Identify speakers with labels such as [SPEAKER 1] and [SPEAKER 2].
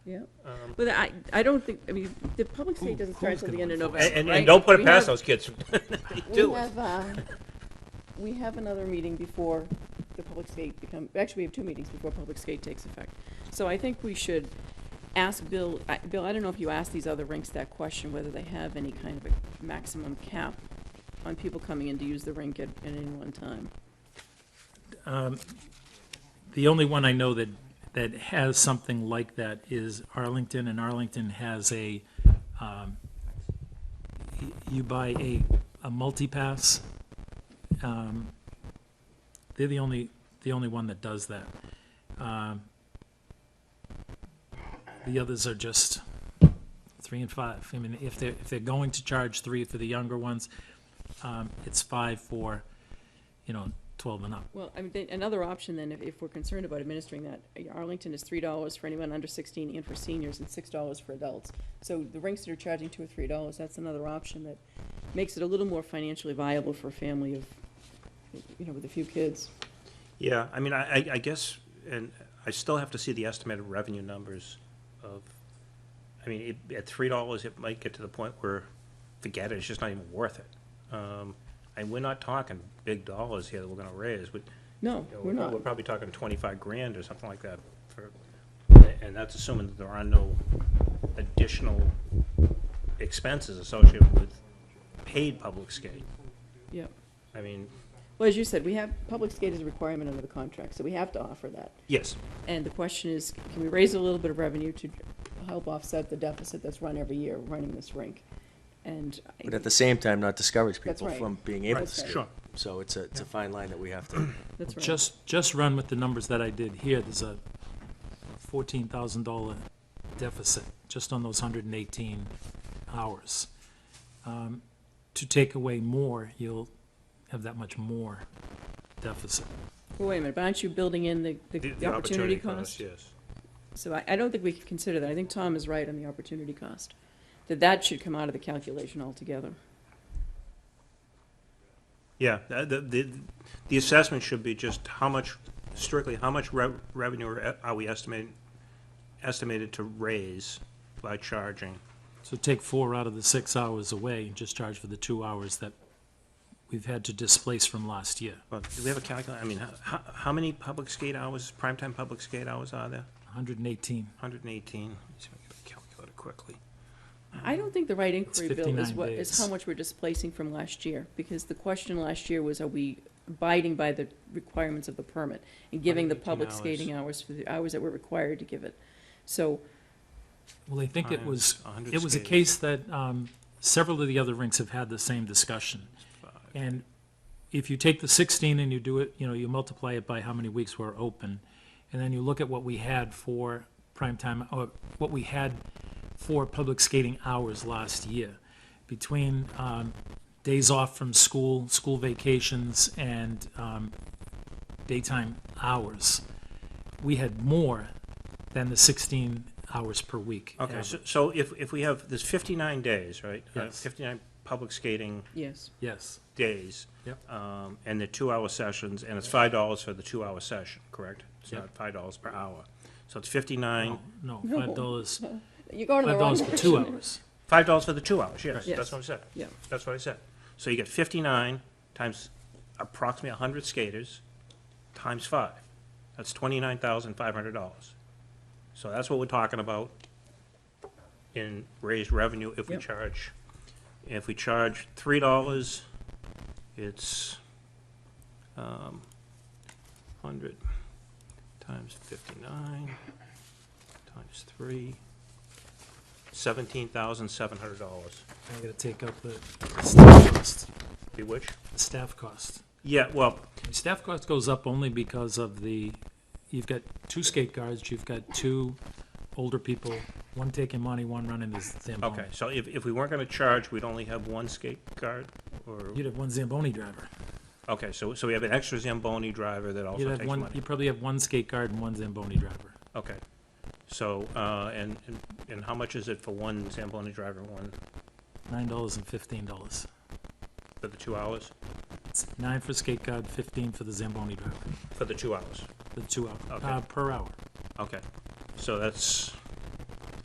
[SPEAKER 1] yeah.
[SPEAKER 2] Um,
[SPEAKER 1] But I, I don't think, I mean, the public state doesn't start until the end of November,
[SPEAKER 2] And, and,
[SPEAKER 1] right?
[SPEAKER 2] and don't put
[SPEAKER 1] We
[SPEAKER 2] it past
[SPEAKER 1] have-
[SPEAKER 2] those kids. They
[SPEAKER 1] We
[SPEAKER 2] do it.
[SPEAKER 1] have, uh, we have another meeting before the public skate become, actually, we have two meetings before public skate takes effect. So I think we should ask Bill, I- Bill, I don't know if you asked these other rinks that question, whether they have any kind of a maximum cap on people coming in to use the rink at, at any one time.
[SPEAKER 3] The only one I know that, that has something like that is Arlington, and Arlington has a, um, y- you buy a, a multi-pass. Um, They're the only, the only one that does that. Um, The others are just three and five. I mean, if they're, if they're going to charge three for the younger ones, um, it's five for, you know, twelve and up.
[SPEAKER 1] Well, I mean, then another option then, if, if we're concerned about administering that, Arlington is three dollars for anyone under sixteen and for seniors, and six dollars for adults. So the rinks that are charging two or three dollars, that's another option that makes it a little more financially viable for a family of, you know, with a few kids.
[SPEAKER 2] Yeah, I mean, I, I, I guess, and I still have to see the estimated revenue numbers of, I mean, it- at three dollars, it might get to the point where, forget it, it's just not even worth it. Um, and we're not talking big dollars here that we're gonna raise, we,
[SPEAKER 1] No,
[SPEAKER 2] you know,
[SPEAKER 1] we're not.
[SPEAKER 2] We're probably talking twenty-five grand or something like that for, and that's assuming that there are no additional expenses associated with paid public skate.
[SPEAKER 1] Yeah.
[SPEAKER 2] I mean,
[SPEAKER 1] Well, as you said, we have, public skate is a requirement under the contract, so we have to offer that.
[SPEAKER 2] yes,
[SPEAKER 1] And the question is, can we raise a little bit of revenue to help offset the deficit that's run every year running this rink? And. I-
[SPEAKER 4] But at the same time, not discourage
[SPEAKER 1] That's
[SPEAKER 4] people
[SPEAKER 1] right.
[SPEAKER 4] from being able to
[SPEAKER 1] Right. That's
[SPEAKER 4] skate.
[SPEAKER 1] right.
[SPEAKER 2] Sure.
[SPEAKER 4] So it's a, it's a fine line that we have to,
[SPEAKER 1] That's right.
[SPEAKER 3] Just, just run with the numbers that I did here, there's a fourteen thousand dollar deficit, just on those hundred and eighteen hours. Um, To take away more, you'll have that much more deficit.
[SPEAKER 1] Well, wait a minute, but aren't you building in the, the-
[SPEAKER 2] the
[SPEAKER 1] the opportunity
[SPEAKER 2] cost,
[SPEAKER 1] cost?
[SPEAKER 2] Yes.
[SPEAKER 1] So I, I don't think we could consider that. I think Tom is right on the opportunity cost, that that should come out of the calculation altogether.
[SPEAKER 2] Yeah, uh, the, the, the assessment should be just how much, strictly, how much rev- revenue are are we estimating, estimated to raise by charging?
[SPEAKER 3] So take four out of the six hours away, and just charge for the two hours that we've had to displace from last year,
[SPEAKER 2] Well, do we have a calculator? I mean, how- how, how many public skate hours, primetime public skate hours are there?
[SPEAKER 3] hundred and eighteen.
[SPEAKER 2] Hundred and eighteen. Let me see if I can get a calculator quickly.
[SPEAKER 1] I don't think the right inquiry, Bill, is
[SPEAKER 3] 59
[SPEAKER 1] what, is how
[SPEAKER 3] Um, days.
[SPEAKER 1] much we're displacing from last year, because the question last year was, are we abiding by the requirements of the permit? And giving the
[SPEAKER 2] 118
[SPEAKER 1] public
[SPEAKER 2] hours.
[SPEAKER 1] skating hours for the hours that we're required to give it. So,
[SPEAKER 3] Well, I think it was,
[SPEAKER 2] Times 100
[SPEAKER 3] it was a
[SPEAKER 2] skaters.
[SPEAKER 3] case that um, several of the other rinks have had the same discussion. And if you take the 16 and you do it, you know, you multiply it by how many weeks were open, and then you look at what we had for prime time, or what we had for public skating hours last year, between um, days off from school, school vacations, and um, daytime hours, we had more than the 16 hours per week.
[SPEAKER 2] Okay, so,
[SPEAKER 3] average.
[SPEAKER 2] so if, if we have, there's fifty-nine days, right? Uh,
[SPEAKER 3] Yes.
[SPEAKER 2] Fifty-nine public skating
[SPEAKER 1] yes,
[SPEAKER 3] Yes.
[SPEAKER 2] days.
[SPEAKER 3] Yep.
[SPEAKER 2] Um, and the two-hour sessions, and it's five dollars for the two-hour session, correct? It's
[SPEAKER 3] Yep.
[SPEAKER 2] not five dollars per hour. So it's fifty-nine,
[SPEAKER 3] No,
[SPEAKER 1] No.
[SPEAKER 3] five dollars,
[SPEAKER 1] you're going to the wrong
[SPEAKER 3] five dollars
[SPEAKER 1] direction.
[SPEAKER 3] for two hours.
[SPEAKER 2] five dollars for the two hours, yes,
[SPEAKER 1] Yes.
[SPEAKER 2] that's what I said.
[SPEAKER 1] Yeah.
[SPEAKER 2] That's what I said. So you get fifty-nine times approximately hundred skaters, times five. That's twenty-nine thousand five hundred dollars. So that's what we're talking about in raised revenue if we
[SPEAKER 1] Yep.
[SPEAKER 2] charge. If we charge three dollars, it's, um, hundred times fifty-nine times three, seventeen thousand seven hundred dollars.
[SPEAKER 3] I'm gonna take up the staff cost,
[SPEAKER 2] Be which?
[SPEAKER 3] the staff cost.
[SPEAKER 2] Yeah, well,
[SPEAKER 3] The Staff cost goes up only because of the, you've got two skate guards, you've got two older people, one taking money, one running the Zamboni.
[SPEAKER 2] okay, so if, if we weren't gonna charge, we'd only have one skate guard, or,
[SPEAKER 3] You'd have one Zamboni driver.
[SPEAKER 2] okay, so, so we have an extra Zamboni driver that
[SPEAKER 3] You'd
[SPEAKER 2] also
[SPEAKER 3] have
[SPEAKER 2] takes
[SPEAKER 3] one,
[SPEAKER 2] money.
[SPEAKER 3] you'd probably have one skate guard and one Zamboni driver.
[SPEAKER 2] Okay, so, uh, and, and- and how much is it for one Zamboni driver, and one
[SPEAKER 3] Nine dollars and fifteen dollars.
[SPEAKER 2] for the two hours?
[SPEAKER 3] It's nine for skate guard, fifteen for the Zamboni driver,
[SPEAKER 2] For the two hours,
[SPEAKER 3] the two hour,
[SPEAKER 2] Okay.
[SPEAKER 3] uh, per hour.
[SPEAKER 2] okay, so that's